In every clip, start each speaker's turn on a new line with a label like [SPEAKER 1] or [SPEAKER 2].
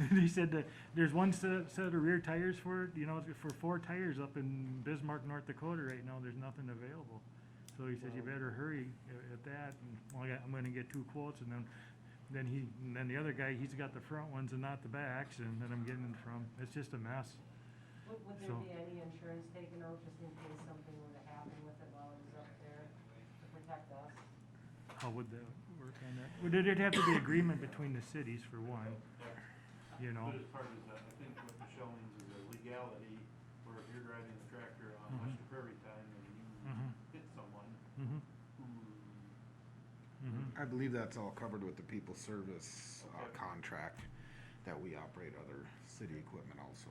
[SPEAKER 1] And he said that there's one set, set of rear tires for, it, you know, for four tires up in Bismarck, North Dakota right now, there's nothing available. So he says you
[SPEAKER 2] Wow.
[SPEAKER 1] better hurry a- at that, and well, I got- I'm gonna get two quotes, and then, then he, and then the other guy, he's got the front ones and not the backs, and then I'm getting from, it's just a mess.
[SPEAKER 3] Would, would
[SPEAKER 1] So-
[SPEAKER 3] there be any insurance taken out just in case something were to happen with it while it was up there to protect us?
[SPEAKER 1] How would that work on that? Would it, it'd have to be agreement between the cities for one, you know?
[SPEAKER 2] But as part of that, I think what Michelle means is a legality, where if you're driving the tractor on
[SPEAKER 1] Mhm.
[SPEAKER 2] Western Prairie time and you
[SPEAKER 1] Mhm.
[SPEAKER 2] hit someone
[SPEAKER 1] Mm-hmm,
[SPEAKER 2] who,
[SPEAKER 1] mm-hmm.
[SPEAKER 4] I believe that's all covered with the people service uh,
[SPEAKER 2] Okay.
[SPEAKER 4] contract that we operate other city equipment also.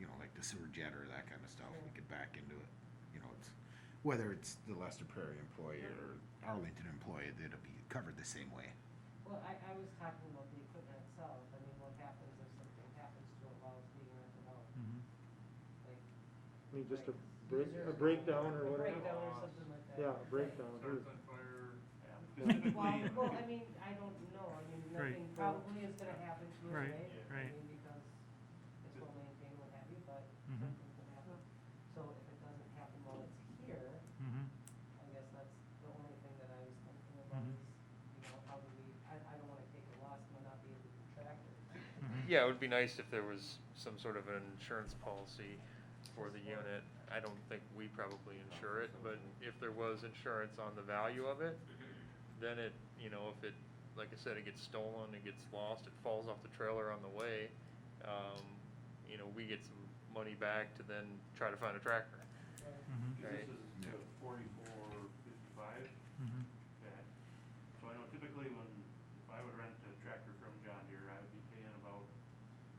[SPEAKER 4] You know, like the sewer jetter, that kind of stuff, we could back into it. You know, it's, whether it's the Lester Prairie employee or Arlington employee, that'll be covered the same way.
[SPEAKER 3] Well, I, I was talking about the equipment itself, I mean, what happens if something happens to it while it's being rented out,
[SPEAKER 1] Mm-hmm.
[SPEAKER 3] like.
[SPEAKER 5] I mean, just a
[SPEAKER 3] like
[SPEAKER 5] break,
[SPEAKER 3] scissors
[SPEAKER 5] a breakdown
[SPEAKER 3] a
[SPEAKER 5] or whatever.
[SPEAKER 3] breakdown or something like that.
[SPEAKER 5] Yeah, a breakdown.
[SPEAKER 6] Starts on fire.
[SPEAKER 2] yeah, because typically.
[SPEAKER 3] Well, well, I mean, I don't know, I mean,
[SPEAKER 1] Right.
[SPEAKER 3] nothing probably is gonna happen to it,
[SPEAKER 1] Right,
[SPEAKER 3] right?
[SPEAKER 1] right.
[SPEAKER 3] I mean, because it's well maintained, what have you, but
[SPEAKER 1] Mhm.
[SPEAKER 3] something could happen. So if it doesn't happen while it's here,
[SPEAKER 1] Mm-hmm,
[SPEAKER 3] I guess that's the only thing that I was thinking about
[SPEAKER 1] Mhm.
[SPEAKER 3] is, you know, how do we, I, I don't wanna take a loss and not be able to track it.
[SPEAKER 1] mm-hmm.
[SPEAKER 6] Yeah, it would be nice if there was some sort of an insurance policy for the unit. I don't think we probably insure it, but if there was insurance on the value of it, then it, you know, if it, like I said, it gets stolen, it gets lost, it falls off the trailer on the way, um, you know, we get some money back to then try to find a tractor.
[SPEAKER 1] Mm-hmm,
[SPEAKER 2] This
[SPEAKER 6] Right.
[SPEAKER 2] is
[SPEAKER 4] Yeah.
[SPEAKER 2] the forty-four fifty-five,
[SPEAKER 1] mm-hmm.
[SPEAKER 2] that, so I know typically when, if I would rent a tractor from John Deere, I would be paying about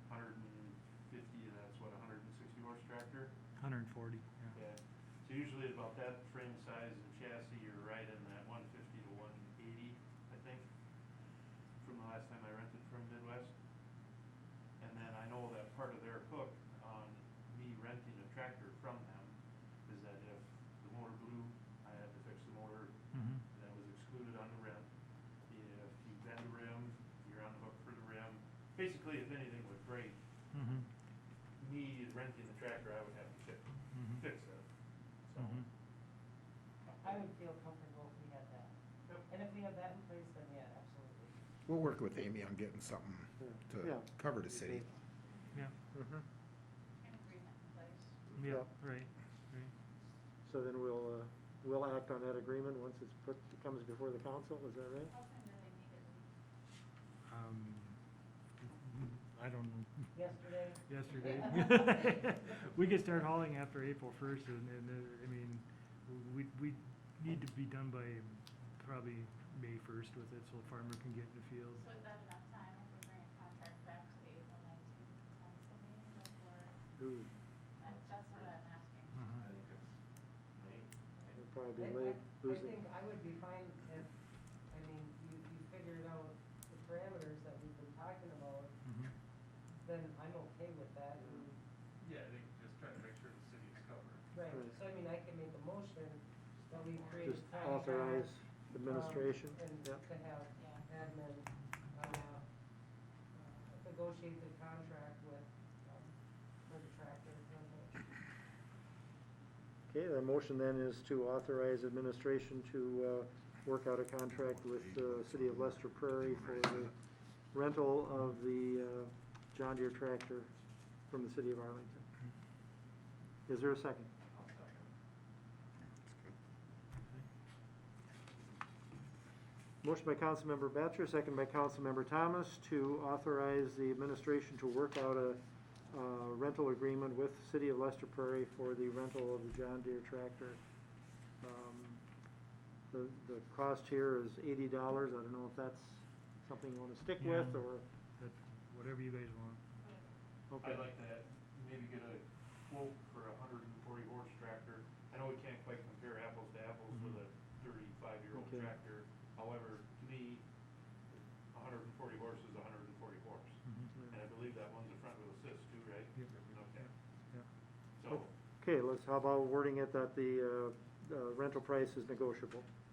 [SPEAKER 2] hundred and fifty, and that's what, a hundred and sixty horse tractor?
[SPEAKER 1] Hundred and forty, yeah.
[SPEAKER 2] Yeah, so usually about that frame size and chassis, you're right in that one fifty to one eighty, I think, from the last time I rented from Midwest. And then I know that part of their hook on me renting a tractor from them is that if the motor blew, I had to fix the motor,
[SPEAKER 1] Mm-hmm,
[SPEAKER 2] that was excluded on the rim. If you bend the rim, you're on the hook for the rim. Basically, if anything would break,
[SPEAKER 1] mm-hmm,
[SPEAKER 2] me renting the tractor, I would have to fix,
[SPEAKER 1] mm-hmm,
[SPEAKER 2] fix it, so.
[SPEAKER 1] mm-hmm.
[SPEAKER 3] I would feel comfortable if we had that.
[SPEAKER 2] Yep.
[SPEAKER 3] And if we have that in place, then yeah, absolutely.
[SPEAKER 4] We'll work with Amy on getting something to
[SPEAKER 5] Yeah.
[SPEAKER 4] cover the city.
[SPEAKER 1] Yeah,
[SPEAKER 5] Mhm.
[SPEAKER 7] An agreement in place.
[SPEAKER 1] yeah,
[SPEAKER 5] Yeah.
[SPEAKER 1] right, right.
[SPEAKER 5] So then we'll, uh, we'll act on that agreement once it's put, it comes before the council, is that right?
[SPEAKER 7] How soon do they need it?
[SPEAKER 1] Um, I don't know,
[SPEAKER 3] Yesterday,
[SPEAKER 1] yesterday. We could start hauling after April first and, and, uh, I mean, we, we need to be done by probably May first with it so the farmer can get in the field.
[SPEAKER 7] So is that enough time if we bring a contract back to the April nineteenth council meeting before,
[SPEAKER 3] Oh.
[SPEAKER 5] Ooh,
[SPEAKER 7] that's just what I'm asking.
[SPEAKER 1] Uh-huh.
[SPEAKER 2] I think it's May.
[SPEAKER 5] It'll
[SPEAKER 3] I,
[SPEAKER 5] probably be
[SPEAKER 3] I,
[SPEAKER 5] late,
[SPEAKER 3] I think
[SPEAKER 5] losing,
[SPEAKER 3] I would be fine if, I mean, you, you figured out the parameters that we've been talking about,
[SPEAKER 1] Mhm.
[SPEAKER 3] then I'm okay with that. and-
[SPEAKER 6] Yeah, I think just trying to make sure the city is covered.
[SPEAKER 3] Right,
[SPEAKER 5] Right.
[SPEAKER 3] so I mean, I can make a motion that we create
[SPEAKER 5] just
[SPEAKER 3] a contract.
[SPEAKER 5] authorize
[SPEAKER 3] um,
[SPEAKER 5] administration,
[SPEAKER 3] And to
[SPEAKER 5] yep.
[SPEAKER 3] have
[SPEAKER 7] Yeah.
[SPEAKER 3] admin, uh, uh, negotiate the contract with, um, for the tractor, rental.
[SPEAKER 5] Okay, the motion then is to authorize administration to, uh, work out a contract with the city of Lester Prairie for the rental of the, uh, John Deere tractor from the city of Arlington. Is there a second? Motion by Councilmember Batchor, second by Councilmember Thomas, to authorize the administration to work out a uh, rental agreement with City of Lester Prairie for the rental of the John Deere tractor. Um, The, the cost here is eighty dollars, I don't know if that's something you wanna stick with,
[SPEAKER 1] Yeah.
[SPEAKER 5] or,
[SPEAKER 1] That, mm-hmm. whatever you guys want.
[SPEAKER 5] okay.
[SPEAKER 2] I'd like to maybe get a quote for a hundred and forty horse tractor. I know we can't quite compare apples to apples with a thirty-five year old
[SPEAKER 5] Okay.
[SPEAKER 2] tractor. However, to me, a hundred and forty horse is a hundred and forty horse.
[SPEAKER 1] Mhm.
[SPEAKER 2] And I believe that one's a front wheel assist too, right?
[SPEAKER 1] Yep.
[SPEAKER 2] Okay.
[SPEAKER 1] Yep.
[SPEAKER 2] So,
[SPEAKER 5] Okay, let's, how about wording it that the uh, uh, rental price is negotiable?
[SPEAKER 1] Mm-hmm.